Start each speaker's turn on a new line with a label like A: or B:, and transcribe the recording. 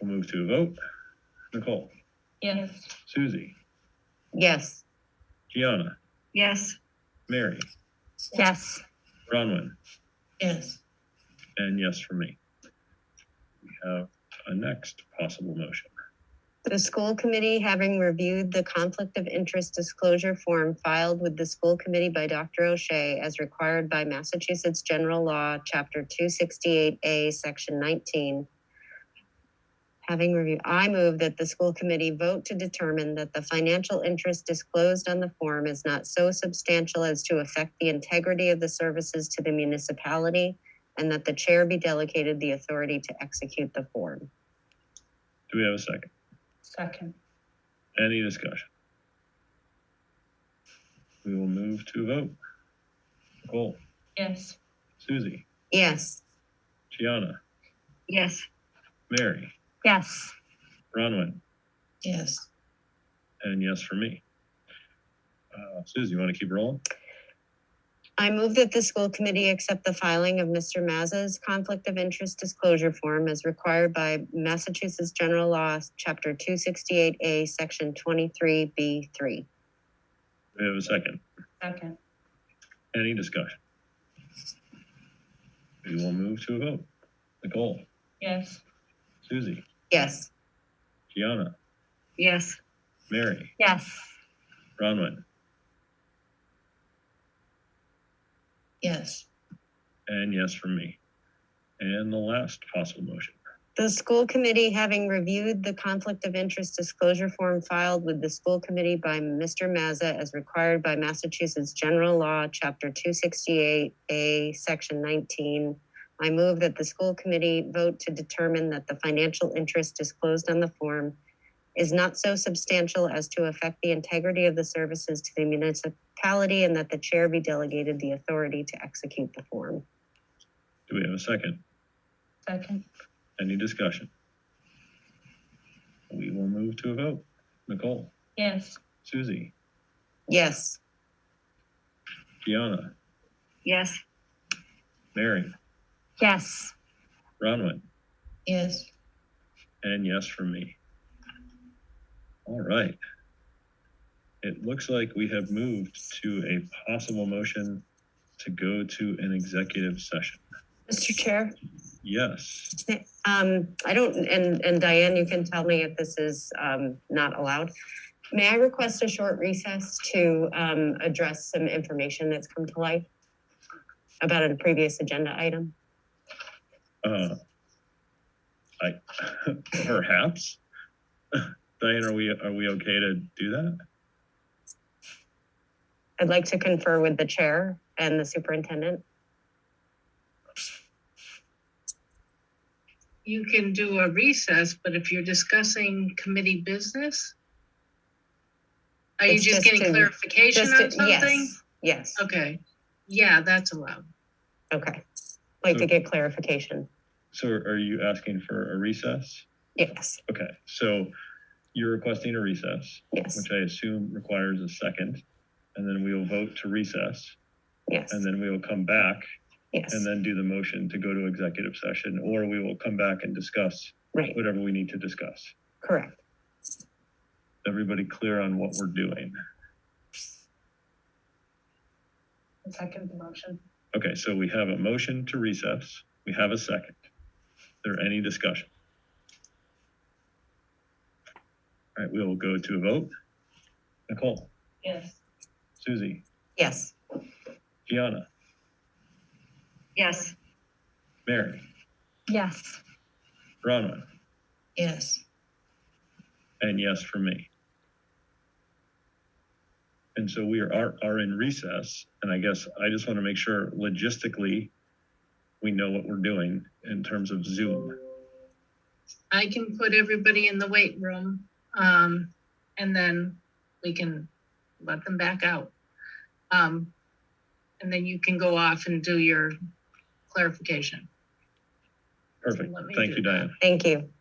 A: We'll move to a vote. Nicole,
B: Yes.
A: Susie,
C: Yes.
A: Gianna,
C: Yes.
A: Mary,
B: Yes.
A: Bronwyn,
C: Yes.
A: and yes for me. We have a next possible motion.
C: The school committee, having reviewed the conflict of interest disclosure form filed with the school committee by Dr. O'Shea as required by Massachusetts General Law, Chapter 268A, Section 19. Having reviewed, I move that the school committee vote to determine that the financial interest disclosed on the form is not so substantial as to affect the integrity of the services to the municipality and that the chair be delegated the authority to execute the form.
A: Do we have a second?
B: Second.
A: Any discussion? We will move to a vote. Nicole,
B: Yes.
A: Susie,
C: Yes.
A: Gianna,
C: Yes.
A: Mary,
B: Yes.
A: Bronwyn,
C: Yes.
A: and yes for me. Uh, Susie, you want to keep rolling?
C: I move that the school committee accept the filing of Mr. Mazza's conflict of interest disclosure form as required by Massachusetts General Law, Chapter 268A, Section 23B3.
A: Do we have a second?
B: Second.
A: Any discussion? We will move to a vote. Nicole,
B: Yes.
A: Susie,
C: Yes.
A: Gianna,
C: Yes.
A: Mary,
B: Yes.
A: Bronwyn,
C: Yes.
A: and yes for me. And the last possible motion.
C: The school committee, having reviewed the conflict of interest disclosure form filed with the school committee by Mr. Mazza as required by Massachusetts General Law, Chapter 268A, Section 19, I move that the school committee vote to determine that the financial interest disclosed on the form is not so substantial as to affect the integrity of the services to the municipality and that the chair be delegated the authority to execute the form.
A: Do we have a second?
B: Second.
A: Any discussion? We will move to a vote. Nicole,
B: Yes.
A: Susie,
C: Yes.
A: Gianna,
C: Yes.
A: Mary,
B: Yes.
A: Bronwyn,
C: Yes.
A: and yes for me. All right. It looks like we have moved to a possible motion to go to an executive session.
C: Mr. Chair?
A: Yes,
C: Um, I don't, and, and Diane, you can tell me if this is, um, not allowed. May I request a short recess to, um, address some information that's come to light about a previous agenda item?
A: uh, I, perhaps. Diane, are we, are we okay to do that?
C: I'd like to confer with the chair and the superintendent.
D: You can do a recess, but if you're discussing committee business? Are you
C: It's
D: just
C: just
D: getting
C: to-
D: clarification
C: Just to-
D: on something?
C: Yes, yes,
D: Okay, yeah, that's allowed.
C: okay. Like to
A: So-
C: get clarification.
A: So are you asking for a recess?
C: Yes,
A: Okay, so you're requesting a recess,
C: yes,
A: which I assume requires a second. And then we will vote to recess,
C: yes,
A: and then we will come back
C: yes,
A: and then do the motion to go to executive session, or we will come back and discuss
C: right,
A: whatever we need to discuss.
C: correct.
A: Everybody clear on what we're doing?
B: Second motion.
A: Okay, so we have a motion to recess. We have a second. Is there any discussion? All right, we will go to a vote. Nicole,
B: Yes.
A: Susie,
C: Yes.
A: Gianna,
C: Yes.
A: Mary,
B: Yes.
A: Bronwyn,
C: Yes.
A: and yes for me. And so we are, are, are in recess, and I guess I just want to make sure logistically, we know what we're doing in terms of Zoom.
D: I can put everybody in the weight room, um, and then we can let them back out. Um, and then you can go off and do your clarification.
A: Perfect.
D: Let me
A: Thank
D: do
A: you,
D: that.
A: Diane.
C: Thank you.